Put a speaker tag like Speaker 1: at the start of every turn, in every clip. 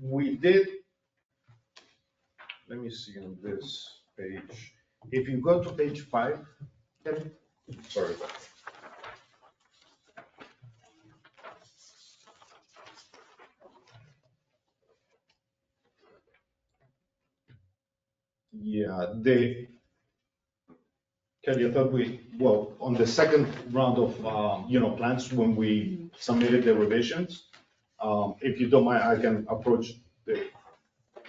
Speaker 1: we did, let me see on this page, if you go to page five, Kevin, sorry. Yeah, they, Kelly, I thought we, well, on the second round of, um, you know, plans, when we submitted the revisions, um, if you don't mind, I can approach the,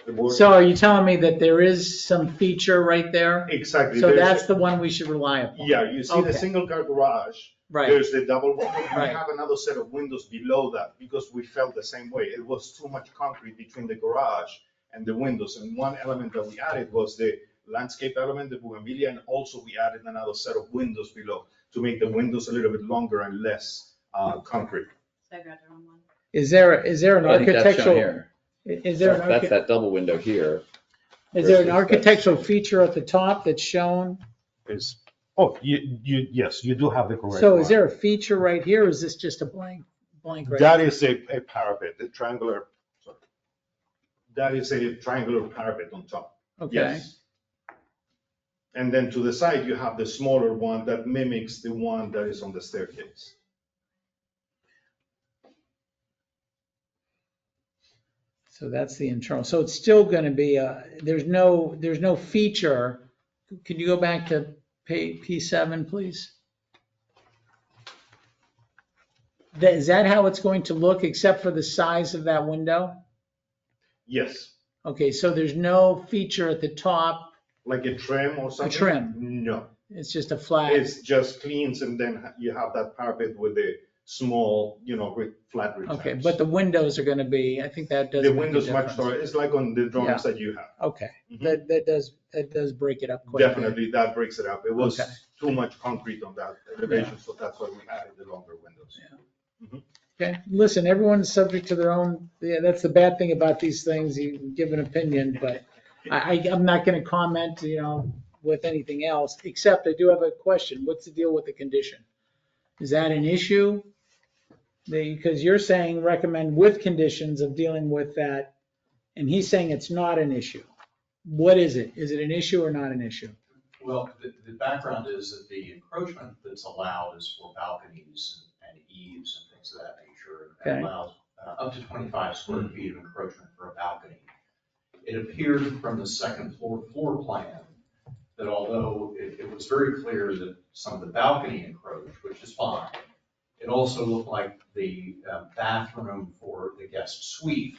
Speaker 1: the board.
Speaker 2: So are you telling me that there is some feature right there?
Speaker 1: Exactly.
Speaker 2: So
Speaker 1: there's-
Speaker 2: that's the one we should rely upon?
Speaker 1: Yeah, you see the
Speaker 2: Okay.
Speaker 1: single car garage,
Speaker 2: Right,
Speaker 1: there's the double, window, we
Speaker 2: Right.
Speaker 1: have another set of windows below that because we felt the same way. It was too much concrete between the garage and the windows. And one element that we added was the landscape element, the bougainvillea, and also we added another set of windows below to make the windows a little bit longer and less uh, concrete.
Speaker 3: So I grabbed the wrong one.
Speaker 2: is there, is there an
Speaker 4: I think that's shown
Speaker 2: architectural,
Speaker 4: here.
Speaker 2: is there an,
Speaker 4: That's
Speaker 2: archi-
Speaker 4: that double window here.
Speaker 2: is there an
Speaker 4: versus that's-
Speaker 2: architectural feature at the top that's shown?
Speaker 1: Is, oh, you, you, yes, you do have the correct
Speaker 2: So is there a feature right here, or is this just a blank, blank? right
Speaker 1: That is a, a parapet, a triangular, sorry. That is a triangular parapet on top.
Speaker 2: Okay,
Speaker 1: Yes. And then to the side, you have the smaller one that mimics the one that is on the staircase.
Speaker 2: so that's the internal, so it's still gonna be, a- there's no, there's no feature. Can you go back to P, P7, please? That, is that how it's going to look, except for the size of that window?
Speaker 1: Yes,
Speaker 2: Okay, so there's no feature at the top,
Speaker 1: like a trim or something?
Speaker 2: trim.
Speaker 1: No,
Speaker 2: it's just a flat.
Speaker 1: it's just cleans and then you have that parapet with a small, you know, re- flat roof.
Speaker 2: Okay, but the windows are gonna be, I think that does.
Speaker 1: The
Speaker 2: make a
Speaker 1: windows much
Speaker 2: difference.
Speaker 1: taller, it's like on the drawings that you have.
Speaker 2: Okay,
Speaker 1: Mhm.
Speaker 2: that, that does, that does break it up quite a bit.
Speaker 1: Definitely, that breaks it up. It was
Speaker 2: Okay.
Speaker 1: too much concrete on that elevation, so that's why we added the longer windows.
Speaker 2: Okay, listen, everyone's subject to their own, yeah, that's the bad thing about these things, you can give an opinion, but I, I, I'm not gonna comment, you know, with anything else, except I do have a question, what's the deal with the condition? Is that an issue? Because you're saying recommend with conditions of dealing with that, and he's saying it's not an issue. What is it? Is it an issue or not an issue?
Speaker 5: Well, the, the background is that the encroachment that's allowed is for balconies and eaves and things of that nature.
Speaker 2: Okay.
Speaker 5: and allows uh, up to 25 square feet of encroachment for a balcony. It appeared from the second floor floor plan that although it, it was very clear that some of the balcony encroached, which is fine, it also looked like the uh, bathroom for the guest suite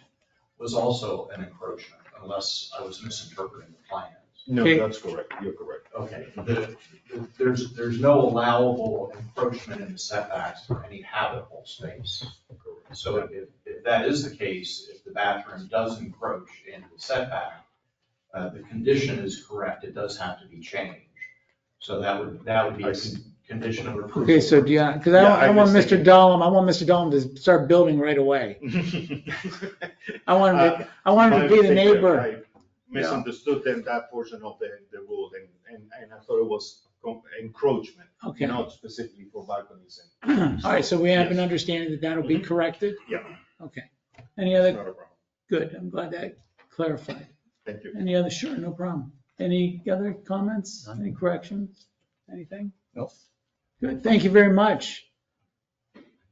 Speaker 5: was also an encroachment, unless I was misinterpreting the plans.
Speaker 1: No,
Speaker 2: Okay.
Speaker 1: that's correct. You're correct.
Speaker 5: Okay, the- the- there's, there's no allowable encroachment in the setbacks for any habitable space. So if, if that is the case, if the bathroom does encroach into the setback, uh, the condition is correct, it does have to be changed. So that would, that would be
Speaker 1: I
Speaker 5: a
Speaker 1: see.
Speaker 5: con- condition of approval.
Speaker 2: Okay, so do you, because I
Speaker 1: Yeah,
Speaker 2: don't, I
Speaker 1: I'm
Speaker 2: don't want
Speaker 1: just
Speaker 2: Mr.
Speaker 1: thinking-
Speaker 2: Dahlem, I want Mr. Dahlem to start building right away. I want
Speaker 1: Uh,
Speaker 2: him to, I want him to
Speaker 1: My
Speaker 2: be the
Speaker 1: mistake there.
Speaker 2: neighbor.
Speaker 1: I Misunderstood then that portion of the, the rule and, and, and I thought it was com- encroachment,
Speaker 2: Okay, all
Speaker 1: not specifically for balconies and.
Speaker 2: right, so we have an
Speaker 1: Yes.
Speaker 2: understanding that that'll be
Speaker 1: Mhm.
Speaker 2: corrected?
Speaker 1: Yeah.
Speaker 2: Okay. Any
Speaker 1: Not a
Speaker 2: other,
Speaker 1: problem.
Speaker 2: good, I'm glad that clarified.
Speaker 1: Thank you.
Speaker 2: Any other, sure, no problem. Any other comments, any corrections, anything?
Speaker 4: Nope.
Speaker 2: Good, thank you very much.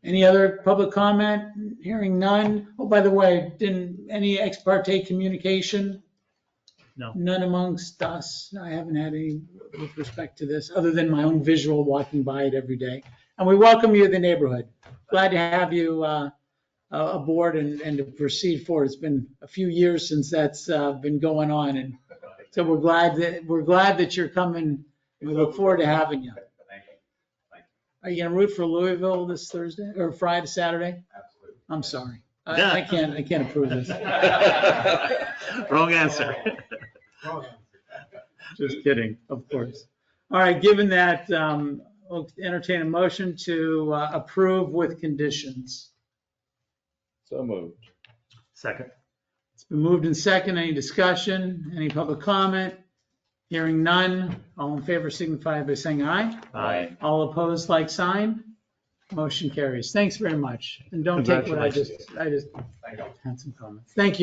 Speaker 2: Any other public comment? Hearing none. Oh, by the way, didn't, any ex parte communication?
Speaker 6: No.
Speaker 2: None amongst us. I haven't had any with respect to this, other than my own visual walking by it every day. And we welcome you to the neighborhood. Glad to have you uh, uh, aboard and, and to proceed forward. It's been a few years since that's uh, been going on, and so we're glad that, we're glad that you're coming. We look forward to having you.
Speaker 5: Thank you.
Speaker 2: Are you gonna root for Louisville this Thursday or Friday, Saturday? I'm sorry. I, I can't, I can't approve this.
Speaker 6: Wrong answer.
Speaker 5: Absolutely.
Speaker 2: Just kidding, of course. All right, given that, um, we'll entertain a motion to uh, approve with conditions.
Speaker 4: So moved.
Speaker 6: Second.
Speaker 2: It's been moved and second. Any discussion? Any public comment? Hearing none. All in favor signify by saying aye.
Speaker 6: Aye.
Speaker 2: All opposed, like sign. Motion carries. Thanks very much. And don't take what I just, I just
Speaker 5: Thank you.
Speaker 2: had some comments. Thank you.